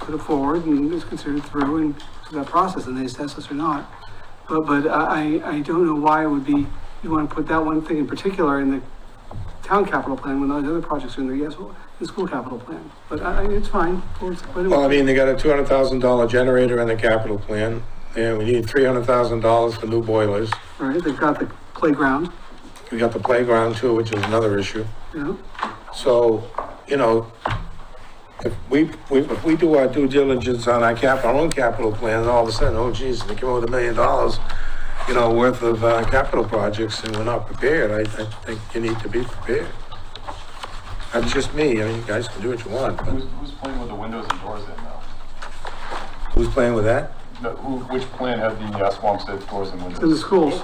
put it forward and it's considered through and through that process and they assess us or not. But, but I, I I don't know why it would be, you want to put that one thing in particular in the town capital plan when those other projects are in the, yes, the school capital plan. But I, I- it's fine. It's- but it- Well, I mean, they got a two hundred thousand dollar generator in the capital plan, and we need three hundred thousand dollars for new boilers. Right, they've got the playground, We got the playground too, which is another issue. you know? So, you know, if we, we, if we do our due diligence on our cap, our own capital plan, and all of a sudden, oh geez, they come up with a million dollars, you know, worth of, uh, capital projects, and we're not prepared, I, I think you need to be prepared. That's just me, I mean, you guys can do what you want, Who's, but who's playing with the windows and doors in now? who's playing with that? No, who, which plan had the uh, Swampstead doors and in the windows? schools.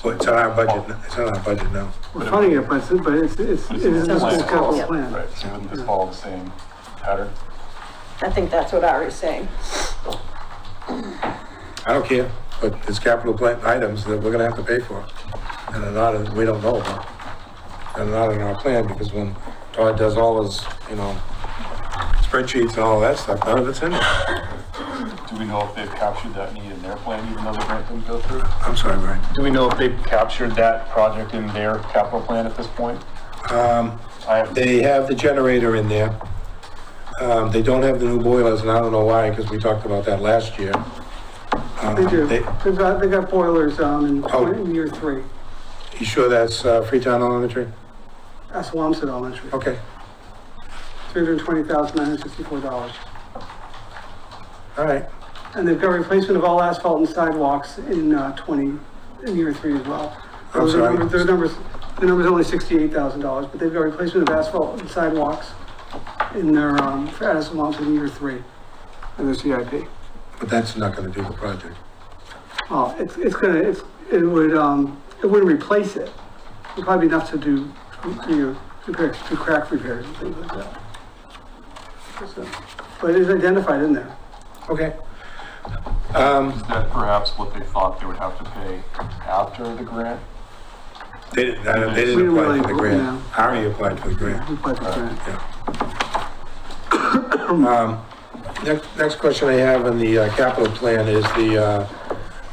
So it's on our budget, n- it's on our budget now. We're funding it, but it's, but it's, it's, it is in the school capital plan. Right, so wouldn't this follow the same pattern? I think that's what Ari's saying. I don't care, but it's capital plan items that we're gonna have to pay for, and are not, in- we don't know about. And not in our plan, because when Todd does all his, you know, spreadsheets and all that stuff, none of it's in there. Do we know if they've captured that need in their plan, even though the grant didn't go through? I'm sorry, Brian. Do we know if they've captured that project in their capital plan at this point? Um, I have, they have the generator in there. Um, they don't have the new boilers, and I don't know why, because we talked about that last year. Um, They do. They've got, they got boilers, um, in, Oh. in year three, You sure that's, uh, Freetown Elementary? at Swamson Elementary, Okay, three hundred and twenty thousand nine hundred sixty-four dollars. all right. And they've got replacement of all asphalt and sidewalks in, uh, twenty, in year three as well. I'm Those are sorry. numbers- Those numbers, the number's only sixty-eight thousand dollars, but they've got replacement of asphalt and sidewalks in their, um, for Addison Swamson year three, in their CIP. But that's not gonna do the project. Well, it's, it's gonna, it's, it would, um, it wouldn't replace it. It'd probably be enough to do, you know, repair, do crack repairs and things like that. So, But it is identified in there. Okay. Um, is that perhaps what they thought they would have to pay after the grant? They didn't, I don't- they We didn't didn't apply for the really- no. grant. Harry applied for the grant, We applied for grant. yeah. Um, Next, next question I have in the uh, capital plan is the, uh,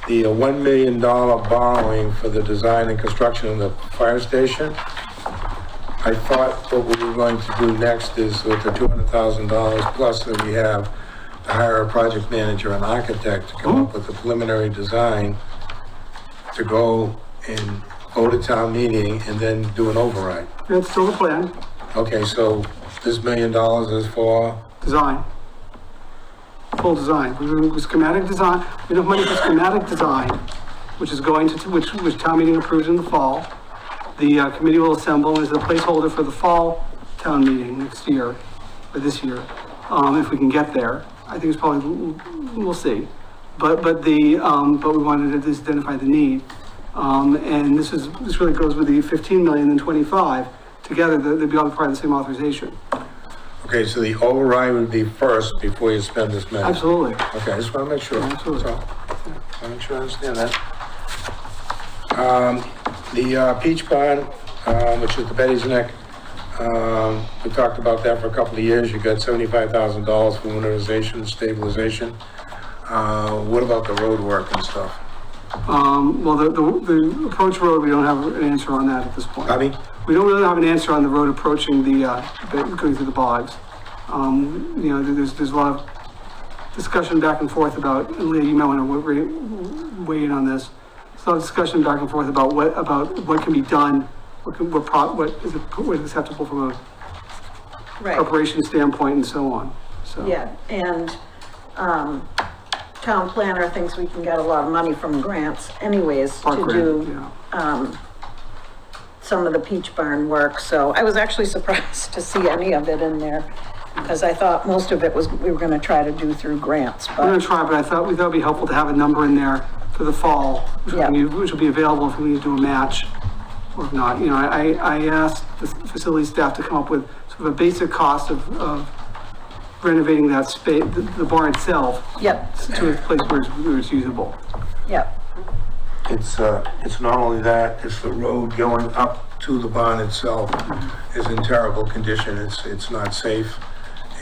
the uh, $1 million borrowing for the design and construction of the fire station. I thought what we were going to do next is with the $200,000 plus that we have, to hire a project manager and architect to come up with a preliminary design to go and go to town meeting and then do an override. That's still the plan, Okay, so this million dollars is for, design. Full design, we're doing schematic design, we have money for schematic design, which is going to, which, which town meeting approves in the fall. The uh, committee will assemble as a placeholder for the fall town meeting next year, or this year, um, if we can get there. I think it's probably, we'll see. But, but the, um, but we wanted to just identify the need. Um, and this is, this really goes with the fifteen million and twenty-five, together, they- they'd be all part of the same authorization. okay, so the override would be first before you spend this million? Absolutely. Okay, I just want to make sure. Yeah, absolutely. So, I want to sure I understand that. Um, The uh, Peach Barn, um, which is the Betty's Neck, um, we talked about that for a couple of years. You got $75,000 for winterization, stabilization. Uh, What about the road work and stuff? Um, well, the, the, the approach road, we don't have an answer on that at this point. I mean, We don't really have an answer on the road approaching the, uh, the- going through the bogs. Um, you know, there's, there's a lot of discussion back and forth about, and Leah, you might wanna wa- re- weigh in on this. There's a lot of discussion back and forth about what, about what can be done, what can, what pro, what is, what is acceptable from a Right, preparation standpoint and so on, so. yeah, and, um, town planner thinks we can get a lot of money from grants anyways Park to grant, do yeah. some of the peach barn work, so I was actually surprised to see any of it in there, because I thought most of it was, we were gonna try to do through grants, We're gonna but, try, but I thought we thought it'd be helpful to have a number in there for the fall, which will Yeah. be- which will be available if we need to do a match or if not. You know, I, I asked the facility staff to come up with sort of a basic cost of, of renovating that space, the, the barn itself yep, to a place where it's, where it's usable. yep, it's, uh, it's not only that, it's the road going up to the barn itself is in terrible condition. It's, it's not safe.